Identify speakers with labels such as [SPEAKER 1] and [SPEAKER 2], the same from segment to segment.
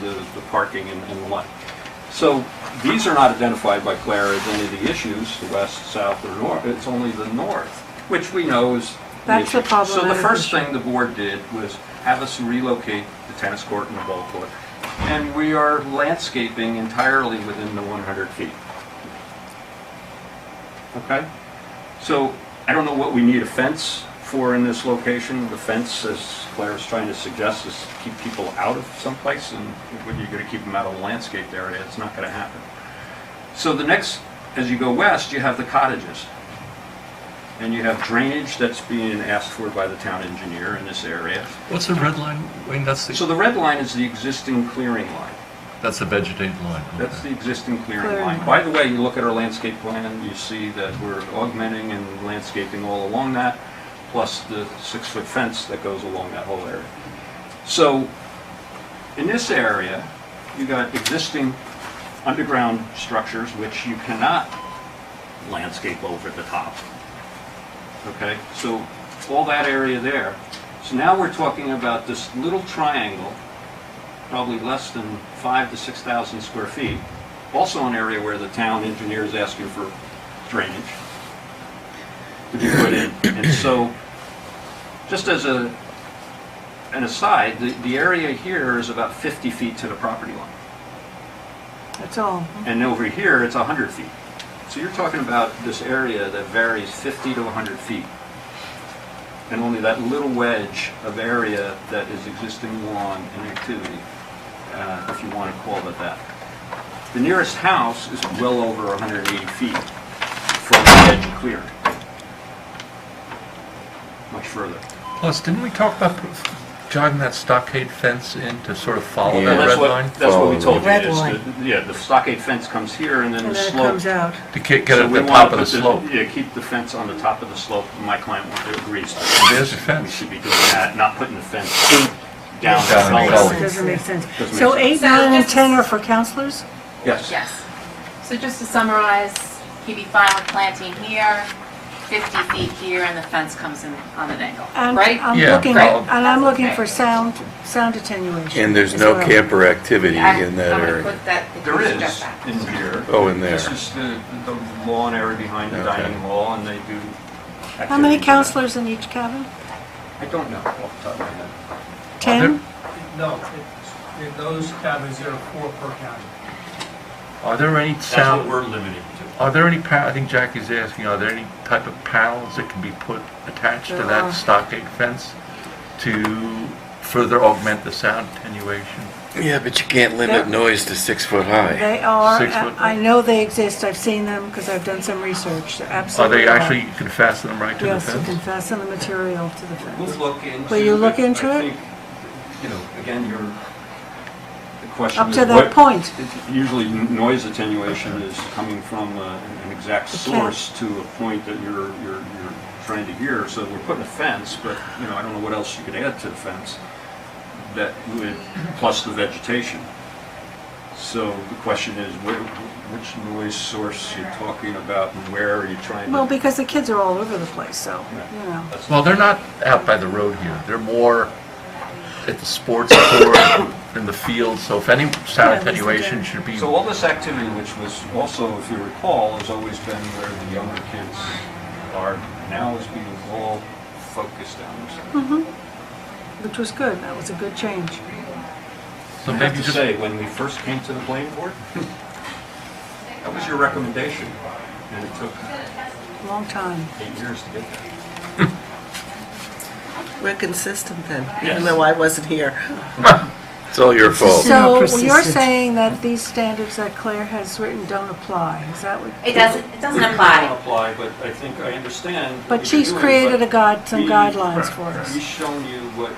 [SPEAKER 1] the, the parking and and the like. So these are not identified by Claire as any of the issues, the west, south, or north, it's only the north, which we know is the
[SPEAKER 2] That's
[SPEAKER 1] issue.
[SPEAKER 2] the problem
[SPEAKER 1] So
[SPEAKER 2] that
[SPEAKER 1] the
[SPEAKER 2] is-
[SPEAKER 1] first thing the board did was have us relocate the tennis court and the ball court, and we are landscaping entirely within the 100 feet. Okay? So I don't know what we need a fence for in this location. The fence, as Claire's trying to suggest, is to keep people out of someplace, and when you're gonna keep them out of the landscape there, it's not gonna happen. So the next, as you go west, you have the cottages. And you have drainage that's being asked for by the town engineer in this area.
[SPEAKER 3] What's the red line? Wayne, that's
[SPEAKER 1] So
[SPEAKER 3] the,
[SPEAKER 1] the red line is the existing clearing line.
[SPEAKER 3] that's the vegetated line.
[SPEAKER 1] That's the existing clearing
[SPEAKER 2] Clearing
[SPEAKER 1] line.
[SPEAKER 2] line.
[SPEAKER 1] By the way, you look at our landscape plan, you see that we're augmenting and landscaping all along that, plus the six-foot fence that goes along that whole area. So, in this area, you got existing underground structures which you cannot landscape over the top. Okay, so all that area there. So now we're talking about this little triangle probably less than five to 6,000 square feet. Also an area where the town engineer is asking for drainage to be put in. And so, just as a, an aside, the, the area here is about 50 feet to the property line.
[SPEAKER 2] That's all.
[SPEAKER 1] And over here, it's 100 feet. So you're talking about this area that varies 50 to 100 feet. And only that little wedge of area that is existing lawn and activity, uh, if you want to call it that. The nearest house is well over 180 feet from the edge clear. Much further.
[SPEAKER 3] Plus, didn't we talk about jogging that stockade fence in to sort of follow
[SPEAKER 4] Yeah.
[SPEAKER 3] that
[SPEAKER 1] And that's
[SPEAKER 3] red
[SPEAKER 1] what,
[SPEAKER 3] line? Oh,
[SPEAKER 1] that's what we told you.
[SPEAKER 2] Red
[SPEAKER 1] is
[SPEAKER 2] line.
[SPEAKER 1] that- Yeah, the stockade fence comes here and then
[SPEAKER 2] And
[SPEAKER 1] the
[SPEAKER 2] then it
[SPEAKER 1] slope.
[SPEAKER 2] comes out.
[SPEAKER 3] To get, get
[SPEAKER 1] So
[SPEAKER 3] at
[SPEAKER 1] we
[SPEAKER 3] the
[SPEAKER 1] wanna
[SPEAKER 3] top of
[SPEAKER 1] put
[SPEAKER 3] the slope.
[SPEAKER 1] Yeah, keep the fence on the top of the slope, my client won't- agrees.
[SPEAKER 3] There's the
[SPEAKER 1] We
[SPEAKER 3] fence.
[SPEAKER 1] should be doing that, not putting the fence down. the
[SPEAKER 3] Down the
[SPEAKER 1] gully.
[SPEAKER 3] gully.
[SPEAKER 2] Doesn't make sense.
[SPEAKER 1] Doesn't
[SPEAKER 2] So
[SPEAKER 1] make
[SPEAKER 2] eight,
[SPEAKER 5] So
[SPEAKER 2] nine, and
[SPEAKER 5] this
[SPEAKER 2] 10
[SPEAKER 5] is-
[SPEAKER 2] are for counselors?
[SPEAKER 1] Yes.
[SPEAKER 5] Yes. So just to summarize, he'd be fine with planting here, 50 feet here, and the fence comes in on an angle,
[SPEAKER 2] And
[SPEAKER 5] right?
[SPEAKER 2] I'm
[SPEAKER 3] Yeah,
[SPEAKER 2] looking,
[SPEAKER 3] right.
[SPEAKER 2] and I'm looking for
[SPEAKER 5] Okay.
[SPEAKER 2] sound, sound attenuation.
[SPEAKER 4] And there's
[SPEAKER 2] as
[SPEAKER 4] no
[SPEAKER 2] well.
[SPEAKER 4] camper activity
[SPEAKER 5] I-
[SPEAKER 4] in that
[SPEAKER 5] I'm gonna
[SPEAKER 4] area.
[SPEAKER 5] put that- if
[SPEAKER 1] There
[SPEAKER 5] you
[SPEAKER 1] is
[SPEAKER 5] suggest that.
[SPEAKER 1] in here.
[SPEAKER 4] Oh, in there.
[SPEAKER 1] This is the, the lawn area behind the
[SPEAKER 4] Okay.
[SPEAKER 1] dining hall and they do.
[SPEAKER 2] How many
[SPEAKER 1] activities.
[SPEAKER 2] counselors in each cabin?
[SPEAKER 1] I don't know off the top of my head.
[SPEAKER 2] 10?
[SPEAKER 6] No, it's- in those cabins, there are four per cabin.
[SPEAKER 3] Are there any
[SPEAKER 7] That's what
[SPEAKER 3] sound,
[SPEAKER 7] we're limited to.
[SPEAKER 3] are there any, pa- I think Jackie's asking, are there any type of panels that can be put, attached to
[SPEAKER 2] There are.
[SPEAKER 3] that stockade fence to further augment the sound attenuation?
[SPEAKER 4] Yeah, but you can't
[SPEAKER 2] Yeah.
[SPEAKER 4] limit noise to six foot high.
[SPEAKER 2] They are,
[SPEAKER 3] Six foot.
[SPEAKER 2] I know they exist, I've seen them because I've done some research, They're
[SPEAKER 3] Are
[SPEAKER 2] absolutely.
[SPEAKER 3] they actually, you can fasten them right to the
[SPEAKER 2] Yes, you can
[SPEAKER 3] fence?
[SPEAKER 2] fasten the material to the
[SPEAKER 1] We'll
[SPEAKER 2] fence.
[SPEAKER 1] look into.
[SPEAKER 2] Will you look
[SPEAKER 1] but
[SPEAKER 2] into
[SPEAKER 1] I
[SPEAKER 2] it?
[SPEAKER 1] think, You know, again, your, the question
[SPEAKER 2] Up
[SPEAKER 1] is
[SPEAKER 2] to
[SPEAKER 1] what-
[SPEAKER 2] that point,
[SPEAKER 1] Usually noise attenuation is coming from uh, an exact source to a point that you're, you're, you're trying to hear. So we're putting a fence, but, you know, I don't know what else you could add to the fence that would, plus the vegetation. So the question is, wh- which noise source you're talking about and where are you trying to?
[SPEAKER 2] well, because the kids are all over the place, so,
[SPEAKER 1] Yeah.
[SPEAKER 2] you know.
[SPEAKER 3] Well, they're not out by the road here. They're more at the sports court, in the field, so if any
[SPEAKER 2] Yeah,
[SPEAKER 3] sound
[SPEAKER 2] listen
[SPEAKER 3] attenuation
[SPEAKER 2] to-
[SPEAKER 3] should be,
[SPEAKER 1] So all this activity, which was also, if you recall, has always been where the younger kids are, now is being all focused on themselves.
[SPEAKER 2] Which was good, that was a good change.
[SPEAKER 3] so
[SPEAKER 1] I have
[SPEAKER 3] maybe
[SPEAKER 1] to
[SPEAKER 3] just
[SPEAKER 1] say, when we first came to the planning board, that was your recommendation, and it took
[SPEAKER 2] Long time.
[SPEAKER 1] eight years to get there.
[SPEAKER 8] We're consistent then,
[SPEAKER 1] Yes.
[SPEAKER 8] even though I wasn't here.
[SPEAKER 4] It's all your fault.
[SPEAKER 2] So you're
[SPEAKER 8] persistent.
[SPEAKER 2] saying that these standards that Claire has written don't apply, is that what?
[SPEAKER 5] It doesn't, it doesn't
[SPEAKER 1] It
[SPEAKER 5] apply.
[SPEAKER 1] doesn't apply, but I think I understand. what
[SPEAKER 2] But
[SPEAKER 1] you're
[SPEAKER 2] she's
[SPEAKER 1] doing,
[SPEAKER 2] created
[SPEAKER 1] but
[SPEAKER 2] a guide, some
[SPEAKER 1] we-
[SPEAKER 2] guidelines for us.
[SPEAKER 1] We've shown you what,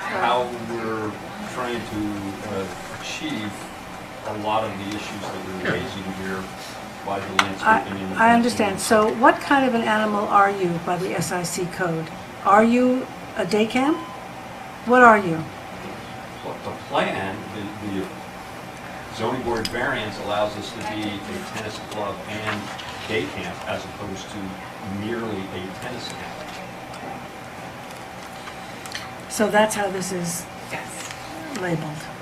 [SPEAKER 1] how we're trying to uh, achieve a lot of the issues that we're raising here by the landscaping. and the
[SPEAKER 2] I, I understand.
[SPEAKER 1] fencing.
[SPEAKER 2] So what kind of an animal are you by the SIC code? Are you a day camp? What are you?
[SPEAKER 1] But the plan, the- the zoning board variance allows us to be a tennis club and day camp as opposed to merely a tennis camp.
[SPEAKER 2] So that's how this is
[SPEAKER 5] Yes.
[SPEAKER 2] labeled.